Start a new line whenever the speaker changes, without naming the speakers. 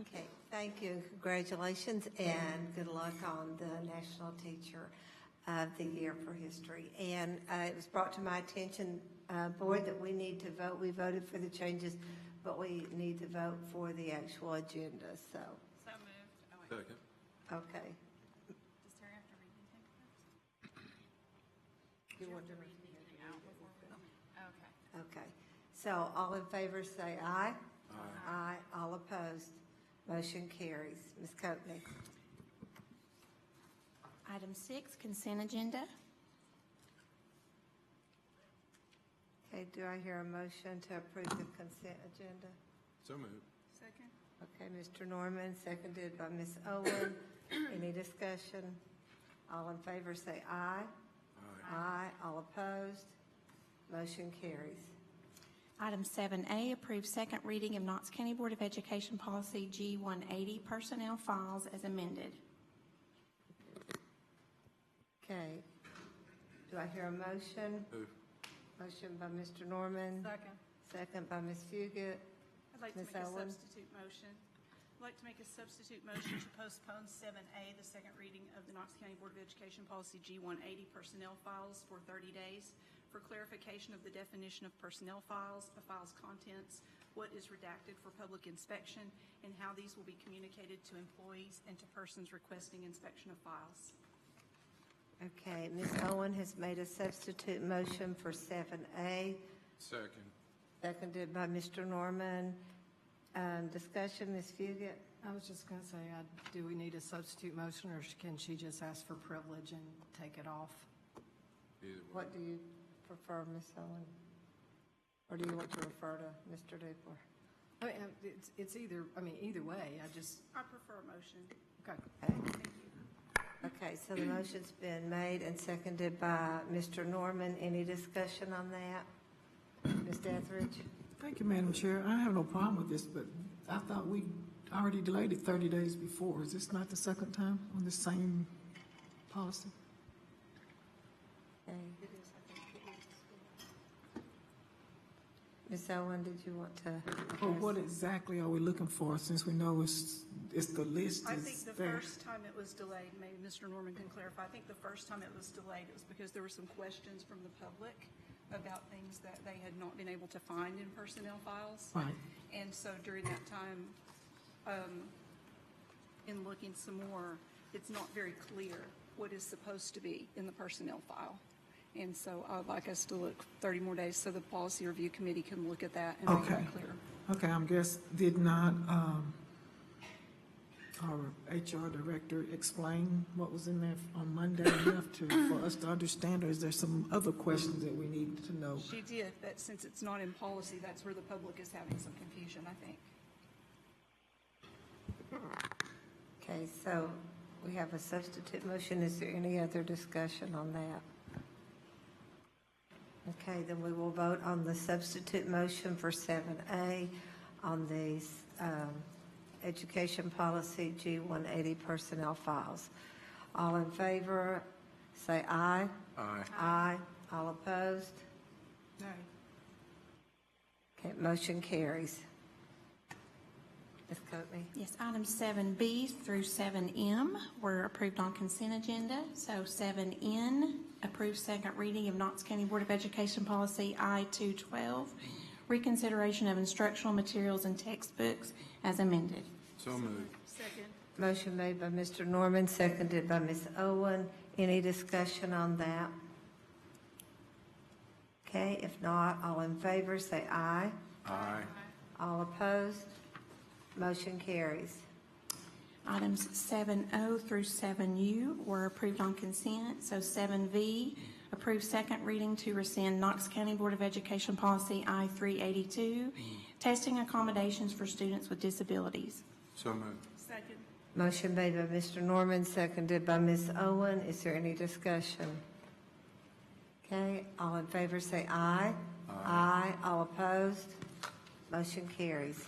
Okay, thank you, and congratulations, and good luck on the National Teacher of the Year for History. And uh, it was brought to my attention, uh, Board, that we need to vote, we voted for the changes, but we need to vote for the actual agenda, so,
So moved. Oh, wait,
Second.
okay.
does Terry have to read anything first?
You want to
Read anything out before we? Okay.
Okay, so all in favor say aye. Aye. all opposed, motion carries. Ms. Coakley?
Item six, consent agenda.
Okay, do I hear a motion to approve the consent agenda?
So moved.
Second?
Okay, Mr. Norman, seconded by Ms. Owen. Any discussion? All in favor say aye.
Aye.
Aye, all opposed, motion carries.
Item seven A, approve second reading of Knox County Board of Education Policy G one eighty, personnel files as amended.
Okay, do I hear a motion?
Move.
Motion by Mr. Norman,
Second.
second by Ms. Fugit.
I'd like to
Ms.
make a
Owen?
substitute motion. I'd like to make a substitute motion to postpone seven A, the second reading of the Knox County Board of Education Policy G one eighty personnel files for thirty days for clarification of the definition of personnel files, a file's contents, what is redacted for public inspection, and how these will be communicated to employees and to persons requesting inspection of files.
Okay, Ms. Owen has made a substitute motion for seven A,
Second.
seconded by Mr. Norman. Um, discussion, Ms. Fugit?
I was just going to say, I- do we need a substitute motion, or sh- can she just ask for privilege and take it off?
Either way.
What do you prefer, Ms. Owen? Or do you want to refer to Mr. Dupler?
I mean, um, it's, it's either, I mean, either way, I just,
I prefer a motion.
okay.
Okay, so the motion's been made and seconded by Mr. Norman. Any discussion on that? Ms. Etheridge?
Thank you, Madam Chair. I have no problem with this, but I thought we already delayed it thirty days before. Is this not the second time on the same policy?
Okay. Ms. Owen, did you want to?
Or
address?
Oh, what exactly are we looking for, since we know it's, it's the list
I
is
think the
there?
first time it was delayed, maybe Mr. Norman can clarify, I think the first time it was delayed, it was because there were some questions from the public about things that they had not been able to find in personnel files.
Right.
And so during that time, um, in looking some more, it's not very clear what is supposed to be in the personnel file. And so I'd like us to look 30 more days so the policy review committee can look at that and make
Okay.
it clear.
Okay, I'm guess, did not, um, our HR director explain what was in there on Monday enough to, for us to understand, or is there some other questions that we need to know?
She did, but since it's not in policy, that's where the public is having some confusion, I think.
Okay, so we have a substitute motion. Is there any other discussion on that? Okay, then we will vote on the substitute motion for 7A on the um, education policy G180 personnel files. All in favor, say aye.
Aye.
Aye. All opposed? Okay, motion carries. Ms. Coakley?
Yes, item seven B through seven M were approved on consent agenda. So seven N, approve second reading of Knox County Board of Education Policy I two twelve, reconsideration of instructional materials and textbooks as amended.
So moved.
Second.
Motion made by Mr. Norman, seconded by Ms. Owen. Any discussion on that? Okay, if not, all in favor, say aye.
Aye.
All opposed, motion carries.
Items 7O through 7U were approved on consent. So 7V, approve second reading to rescind Knox County Board of Education Policy I-382, testing accommodations for students with disabilities.
So moved.
Second.
Motion made by Mr. Norman, seconded by Ms. Owen. Is there any discussion? Okay, all in favor, say aye. Aye. All opposed, motion carries.